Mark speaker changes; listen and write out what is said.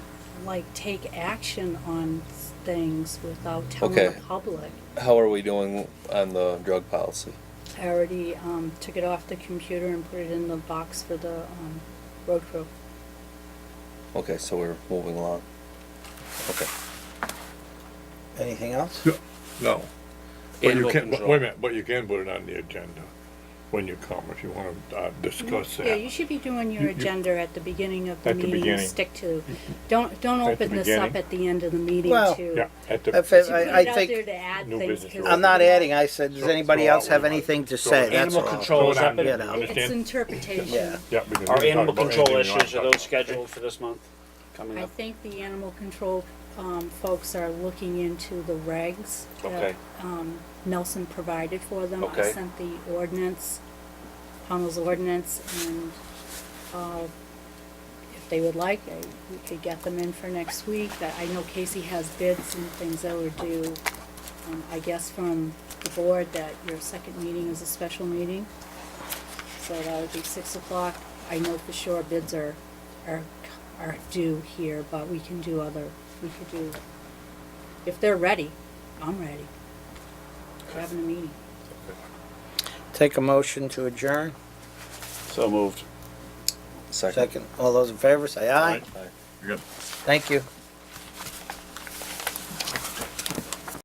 Speaker 1: like take action on things without telling
Speaker 2: Okay.
Speaker 1: the public.
Speaker 2: How are we doing on the drug policy?
Speaker 1: I already, um, took it off the computer and put it in the box for the, um, road crew.
Speaker 2: Okay, so we're moving along. Okay. Anything else?
Speaker 3: No, No. But you
Speaker 2: Animal
Speaker 3: can, but
Speaker 2: control.
Speaker 3: wait a minute, but you can put it on the agenda when you come, if you wanna, uh, discuss
Speaker 1: Yeah, you
Speaker 3: that.
Speaker 1: should be doing your
Speaker 3: You- you-
Speaker 1: agenda at the beginning of the
Speaker 3: At the
Speaker 1: meeting, and
Speaker 3: beginning.
Speaker 1: stick to, don't, don't
Speaker 3: At the
Speaker 1: open this up
Speaker 3: beginning.
Speaker 1: at the end of the meeting
Speaker 4: Well-
Speaker 1: to.
Speaker 3: Yeah, at
Speaker 4: If
Speaker 3: the,
Speaker 4: it-
Speaker 1: to put
Speaker 4: I- I
Speaker 1: it out
Speaker 4: think-
Speaker 1: there to add
Speaker 3: New
Speaker 1: things,
Speaker 3: business
Speaker 1: 'cause
Speaker 3: rules.
Speaker 4: I'm not adding, I said, does
Speaker 3: So-
Speaker 4: anybody
Speaker 3: so
Speaker 4: else
Speaker 3: I'll
Speaker 4: have
Speaker 3: leave it.
Speaker 4: anything to
Speaker 3: So
Speaker 4: say?
Speaker 3: it's
Speaker 4: That's
Speaker 5: Animal
Speaker 4: all.
Speaker 5: control is
Speaker 3: Throw it
Speaker 5: up
Speaker 3: on there.
Speaker 5: in,
Speaker 4: Yeah.
Speaker 1: It's
Speaker 3: understand?
Speaker 1: interpretation.
Speaker 4: Yeah.
Speaker 3: Yeah. because
Speaker 5: Our
Speaker 3: we can
Speaker 5: animal
Speaker 3: talk about
Speaker 5: control
Speaker 3: anything you
Speaker 5: issues, are
Speaker 3: wanna
Speaker 5: those
Speaker 3: talk about.
Speaker 5: scheduled for this month? Coming
Speaker 1: I
Speaker 5: up?
Speaker 1: think the animal control, um, folks are looking into the regs that,
Speaker 5: Okay.
Speaker 1: um, Nelson provided for them. I
Speaker 5: Okay.
Speaker 1: sent the ordinance, Pownell's ordinance, and, uh, if they would like, I, we could get them in for next week. I I know Casey has bids and things that were due, um, I guess from the board that your second meeting is a special meeting. So that would be six o'clock. I know for sure bids are, are, are due here, but we can do other, we could do, if they're ready, I'm ready. We're having a meeting.
Speaker 4: Take a motion to adjourn.
Speaker 5: So moved.
Speaker 2: Second.
Speaker 4: Second, all those in favor, say aye.
Speaker 2: Aye.
Speaker 4: Thank you.